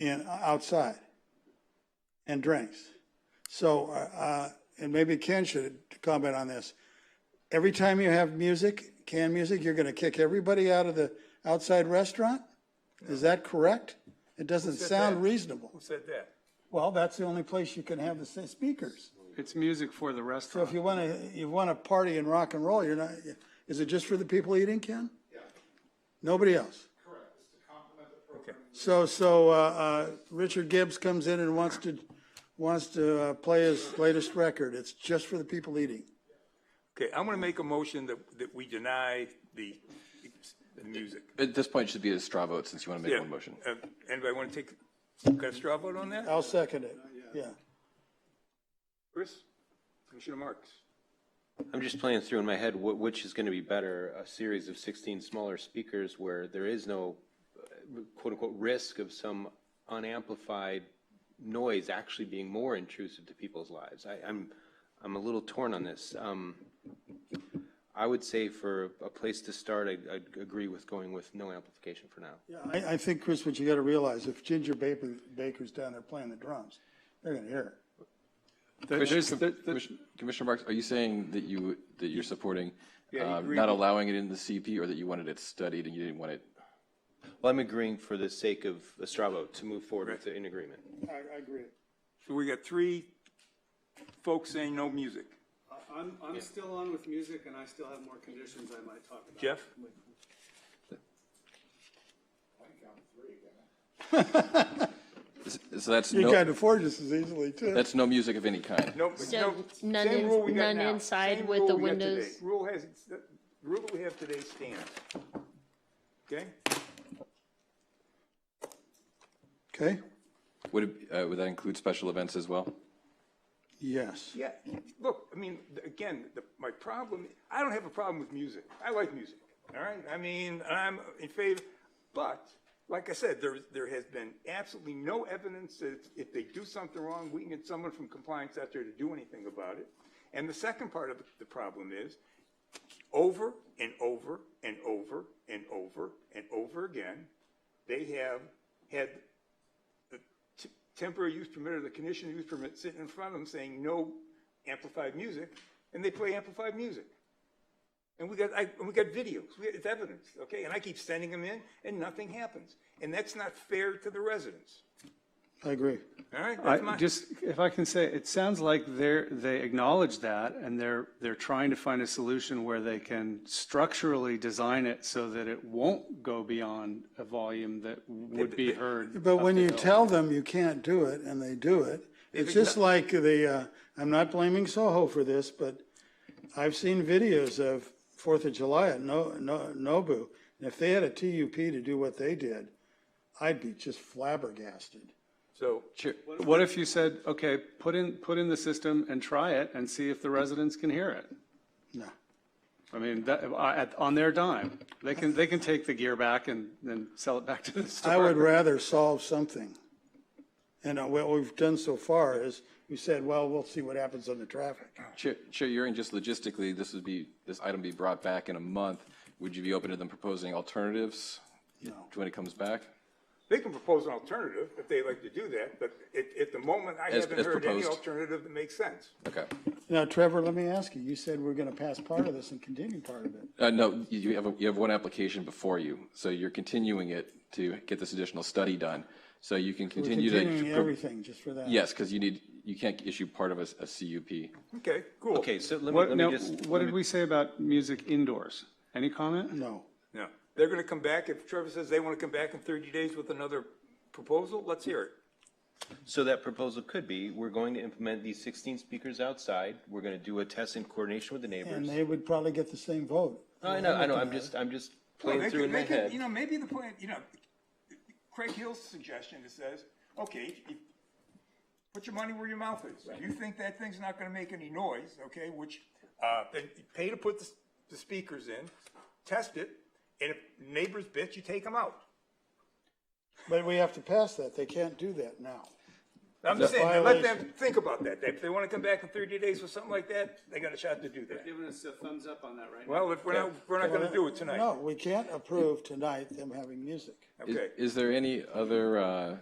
and outside and drinks. So, uh, and maybe Ken should comment on this. Every time you have music, canned music, you're going to kick everybody out of the outside restaurant? Is that correct? It doesn't sound reasonable. Who said that? Well, that's the only place you can have the s- speakers. It's music for the So if restaurant. you want to, you want to party and rock and roll, you're not, is it just for the people eating, Ken? Yeah. Nobody else? Okay. So, so, uh, uh, Richard Gibbs comes in and wants to, wants to uh, play his latest record. It's just for the people eating. Okay, I'm going to make a motion that, that we deny the, the music. At this point, it should be a straw vote since you want to make Yeah. one motion. Uh, Anybody want to take, got a straw vote on Uh, that? I'll second it. Yeah. Chris? Commissioner Marks? I'm just playing through in my head wh- which is going to be better, a series of 16 smaller speakers where there is no uh, quote-unquote risk of some unamplified noise actually being more intrusive to people's lives. I, I'm, I'm a little torn on this. Um, I would say for a place to start, I, I'd agree with going with no amplification for now. I, I think, Chris, what you got to realize, if Ginger Baker, Baker's down there playing the drums, they're going to hear it. There- There's, Commissioner there- there- Commissioner- Commissioner Marks, are you saying that you, that you're supporting uh, agreed not with- allowing it in the CP or that you wanted it studied and you didn't want it? Well, I'm agreeing for the sake of a straw vote to move forward with it in agreement. I, I agree. So we got three folks saying no music. I'm, I'm still on with music and I still have more conditions I might talk about. Jeff? So that's You can no, afford this as easily too. that's no music of any kind. No, no. none Same in- rule we got none now. inside Same with rule the we got today. windows? Rule has, the rule we have today stands. Okay? Okay? Would, it- uh, would that include special events as well? Yes. Yeah, look, I mean, th- again, the, my problem, I don't have a problem with music. I like music, all right? I mean, I'm in favor, but like I said, there, there has been absolutely no evidence that if they do something wrong, we can get someone from compliance out there to do anything about it. And the second part of the problem is, over and over and over and over and over again, they have had the t- temporary use permit or the conditional use permit sitting in front of them saying no amplified music, and they play amplified music. And we got, I, and we got videos, we, it's evidence, okay? And I keep sending them in, and nothing happens. And that's not fair to the residents, I agree. all right? That's I my- just, if I can say, it sounds like they're, they acknowledge that and they're, they're trying to find a solution where they can structurally design it so that it won't go beyond a volume that would be heard. But when you tell them you can't do it and they do it, it's just like the, uh, I'm not blaming Soho for this, but I've seen videos of Fourth of July at No, No, Nobu. And if they had a TUP to do what they did, I'd be just flabbergasted. So, What if you said, okay, put in, put in the system and try it and see if the residents can hear it? No. I mean, that, I- at, on their dime. They can, they can take the gear back and then sell it back to the store. I would rather solve something. And uh, what we've done so far is we said, well, we'll see what happens on the traffic. Chair, Chair Euring, just logistically, this would be, this item be brought back in a month. Would you be open to them proposing alternatives to when it comes back? they can propose an alternative if they like to do that, but at, at the moment, I As- haven't as heard any proposed. alternative that makes sense. Okay. Now, Trevor, let me ask you, you said we're going to pass part of this and continue part of it. Uh, No, you- you have, a- you have one application before you, so you're continuing it to get this additional study done. So you can We're continue to. continuing everything just for that. Yes, because you need, you can't issue part of a a CUP. Okay, cool. Okay, so let me, What, let now, me just. what did we say about music indoors? Any comment? No. No, they're gonna come back, if Trevor says they wanna come back in thirty days with another proposal, let's hear it. So that proposal could be, we're going to implement these 16 speakers outside. We're going to do a test in coordination with the And neighbors. they would probably get the same vote. I know, I know, I'm just, I'm just Well, playing they through could- in my they could- head. You know, maybe the plan, you know, Craig Hill's suggestion that says, okay, if- put your money where your mouth is. If you think that thing's not gonna make any noise, okay, which, uh, then you pay to put the, s- the speakers in, test it, and if neighbors bitch, you take them out. But we have to pass that. They can't do that now. I'm just saying, let them violation. think about that. If they wanna come back in thirty days with something like that, they got a shot to do that. Giving us a thumbs up on that right now. Well, if we're not, we're not gonna do it tonight. No, we can't approve tonight them having music. Is- Okay. Is there any other uh,